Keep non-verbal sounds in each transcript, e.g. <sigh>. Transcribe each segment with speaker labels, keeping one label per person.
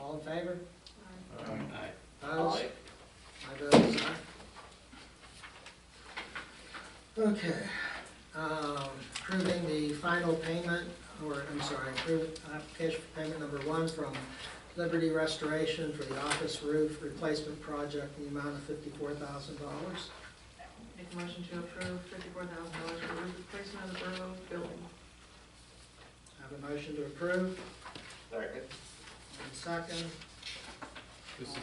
Speaker 1: All in favor?
Speaker 2: Aye.
Speaker 1: Opposed? I vote is aye. Okay, um, approving the final payment, or, I'm sorry, approve application for payment number one from Liberty Restoration for the office roof replacement project in the amount of fifty-four thousand dollars.
Speaker 3: Make a motion to approve fifty-four thousand dollars for roof replacement of the borough building.
Speaker 1: Have a motion to approve,
Speaker 2: Second.
Speaker 1: and second.
Speaker 4: This is,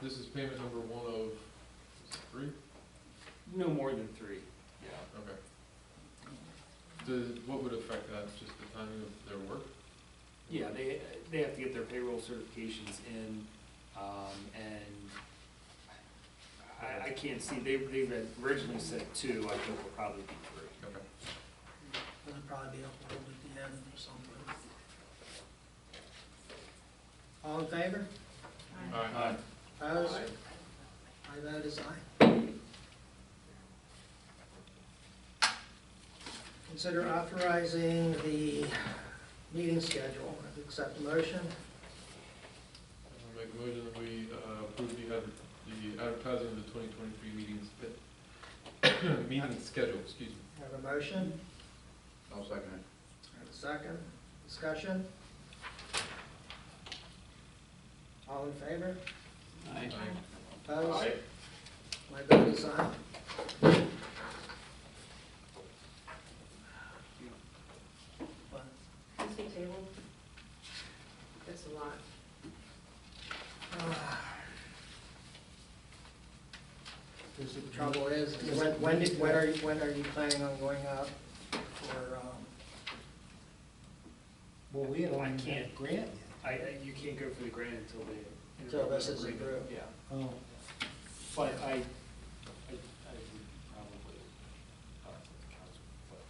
Speaker 4: this is payment number one of is it three?
Speaker 5: No more than three.
Speaker 2: Yeah.
Speaker 4: Okay.
Speaker 1: Um,
Speaker 4: The, what would affect that, just the timing of their work?
Speaker 5: Yeah, they, they have to get their payroll certifications in, um, and I, I can't see, they, they had originally said two, I think will probably be three.
Speaker 4: Okay.
Speaker 1: It'll probably be uploaded at the end or something. All in favor?
Speaker 6: Uh,
Speaker 4: Aye.
Speaker 1: Opposed? I vote is aye. Consider authorizing the meeting schedule. Accept the motion.
Speaker 4: I'll Make a motion that we uh, approve the, ad- the advertising of the twenty twenty-three meetings, but, <coughs> meeting schedule, excuse me.
Speaker 1: Have a motion.
Speaker 2: I'll second it.
Speaker 1: Have a second. Discussion. All in favor?
Speaker 5: Aye.
Speaker 1: Opposed? My vote is aye. What?
Speaker 3: Is it tabled? That's a lot.
Speaker 1: The trouble is, is when, when did- when are, you- when are you planning on going out for, um,
Speaker 6: Well, we had
Speaker 5: I
Speaker 6: only
Speaker 5: can't.
Speaker 6: got grant.
Speaker 5: I, I- you can't go for the grant until they.
Speaker 1: Until this is
Speaker 5: agreement,
Speaker 1: approved.
Speaker 5: Yeah,
Speaker 6: Oh,
Speaker 5: but I, I, I would probably, uh, council, but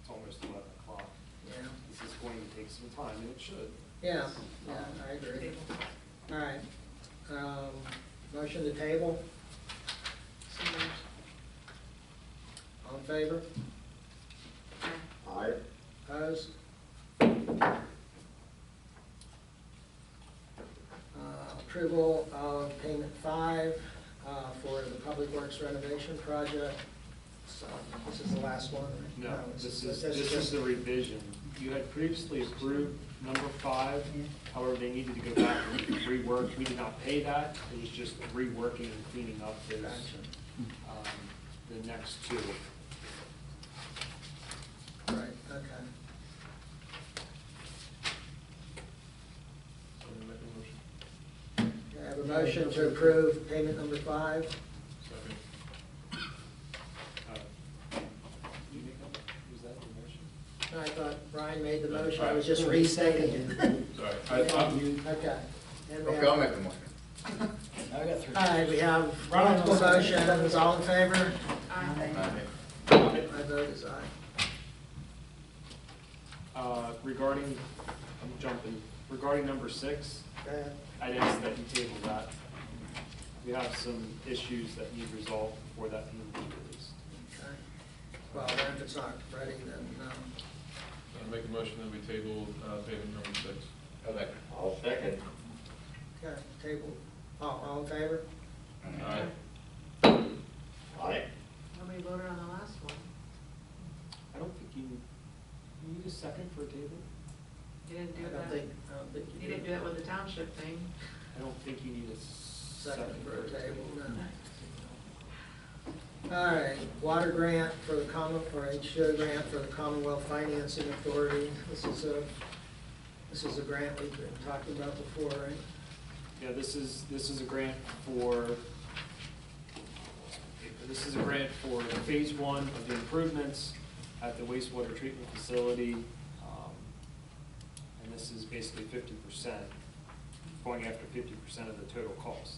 Speaker 5: it's almost eleven o'clock.
Speaker 1: yeah,
Speaker 5: This is going to take some time, and it should.
Speaker 1: yeah, yeah, I agree. All right, um, motion to table,
Speaker 3: So moved.
Speaker 1: all in favor,
Speaker 3: Aye.
Speaker 2: Aye.
Speaker 1: opposed? Uh, Approval of payment five, uh, for the Public Works renovation project, so this is the last one, right?
Speaker 5: No, this is,
Speaker 1: just-
Speaker 5: this is the revision. You had previously approved number five, however, they needed to go back and rework. We did not pay that, it was just reworking and cleaning up those,
Speaker 1: Gotcha.
Speaker 5: um, the next two.
Speaker 1: Right, okay.
Speaker 4: So I'm gonna make a motion.
Speaker 1: Do I have a motion to approve payment number five?
Speaker 4: Second.
Speaker 5: Uh, You make that, was that the motion?
Speaker 1: I thought Brian made the motion, I was just restating it.
Speaker 4: Sorry, I, I,
Speaker 1: Okay. And we have-
Speaker 2: Okay, I'll make the motion.
Speaker 6: I got three.
Speaker 1: All right, we have multiple motions, all in favor?
Speaker 6: Um,
Speaker 3: Aye.
Speaker 1: My vote is aye.
Speaker 5: Uh, regarding, I'm jumping, regarding number six,
Speaker 1: Go ahead.
Speaker 5: I'd ask that you table that. We have some issues that need resolved before that can be released.
Speaker 1: Okay. Well, then if it's not ready, then, um,
Speaker 4: I'll make a motion that we table, uh, payment number six.
Speaker 2: I'll second.
Speaker 1: okay, table, all, all in favor?
Speaker 4: Aye.
Speaker 2: Aye.
Speaker 3: Nobody voted on the last one.
Speaker 5: I don't think you, you need a second for a table?
Speaker 3: You didn't
Speaker 1: I
Speaker 3: do
Speaker 1: don't
Speaker 3: that.
Speaker 1: think, I don't think
Speaker 3: You didn't do that with the township thing.
Speaker 5: I don't think you need a
Speaker 1: Second
Speaker 5: second
Speaker 1: for a table, no. All right, water grant for the common, or HDO grant for the Commonwealth Financing Authority. This is a, this is a grant we've been talking about before, right?
Speaker 5: Yeah, this is, this is a grant for, this is a grant for phase one of the improvements at the wastewater treatment facility. um, And this is basically fifty percent, going after fifty percent of the total cost.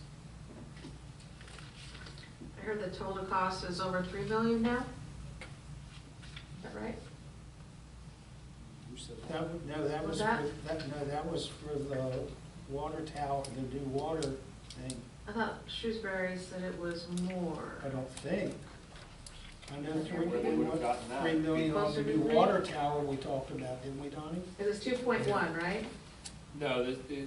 Speaker 3: I heard the total cost is over three million now? Is that right?
Speaker 5: Who said
Speaker 6: That, wa- no, that
Speaker 3: Was
Speaker 6: was,
Speaker 3: that-
Speaker 6: for- that, no, that was for the water tower, the new water thing,
Speaker 3: I thought Shrewsbury said it was more.
Speaker 6: I don't think. I know
Speaker 3: That's
Speaker 6: three
Speaker 3: where they
Speaker 5: would've
Speaker 6: million,
Speaker 5: gotten that.
Speaker 6: three million on
Speaker 3: Closer
Speaker 6: the
Speaker 3: to
Speaker 6: new
Speaker 3: three.
Speaker 6: water tower we talked about, didn't we, Donnie?
Speaker 3: It was two point one, right?
Speaker 5: No, the, the-